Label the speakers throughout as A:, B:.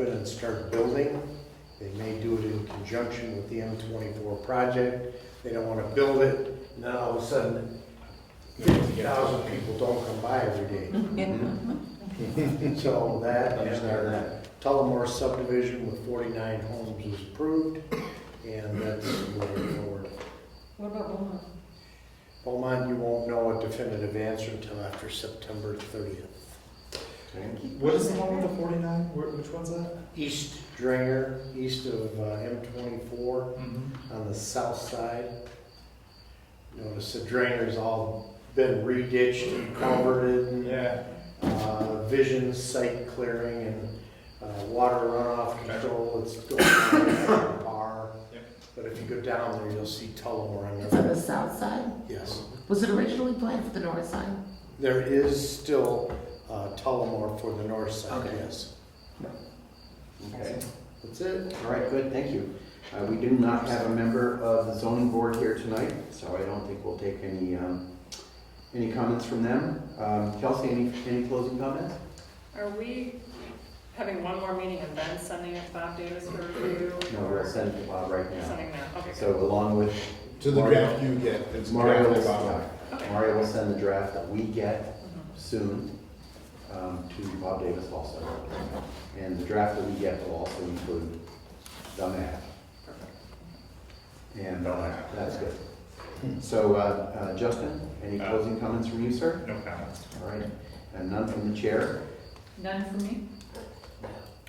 A: open and start building. They may do it in conjunction with the M twenty-four project. They don't wanna build it, and then all of a sudden, fifty thousand people don't come by every day.
B: Mm-hmm.
A: So that, and our Tullamore subdivision with forty-nine homes is approved, and that's moving forward.
C: What about Beaumont?
A: Beaumont, you won't know a definitive answer until after September thirtieth.
B: What is the one with the forty-nine? Which one's that?
A: East Dringer, east of uh, M twenty-four, on the south side. Notice the drainer's all been reditched and culverted and,
B: Yeah.
A: uh, vision site clearing and, uh, water runoff control, it's going on the bar.
B: Yep.
A: But if you go down there, you'll see Tullamore on
D: It's on
A: there.
D: the south side?
A: Yes,
D: Was it originally planned for the north side?
A: there is still, uh, Tullamore for the north side,
D: Okay.
A: yes.
E: Okay,
A: That's it.
E: all right, good, thank you. Uh, We do not have a member of the zoning board here tonight, so I don't think we'll take any, um, any comments from them. Um, Kelsey, any, any closing comments?
F: Are we having one more meeting and then sending it to Bob Davis for review?
E: No, we'll send it to Bob right now.
F: Sending that, okay, good.
E: So along with
G: To the draft you get, it's
E: Mario, uh,
G: drafted by-
E: yeah,
F: Okay.
E: Mario will send the draft that we get
F: Mhm.
E: soon um, to Bob Davis also. And the draft that we get will also include the map. And uh, that's good. So, uh, uh, Justin, any
B: Uh,
E: closing comments from you, sir?
B: No comments.
E: All right, and none from the chair?
C: None for me?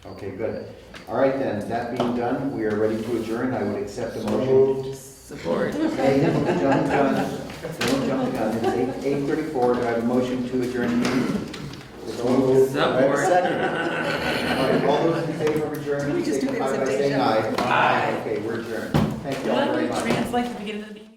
E: Okay, good. All right then, that being done, we are ready to adjourn. I would accept a
A: So
E: motion.
A: moved.
D: Support.
E: Hey, don't jump the gun. Don't jump the gun. It's eight, eight thirty-four. Do I have a motion to adjourn? the meeting? It's moved. Do I have a second? All right, all those in favor of adjournment,
C: we just do the
E: signify by
C: presentation?
E: saying aye. Aye. Okay, we're adjourned. Thank you all very much.
D: like the beginning of the meeting?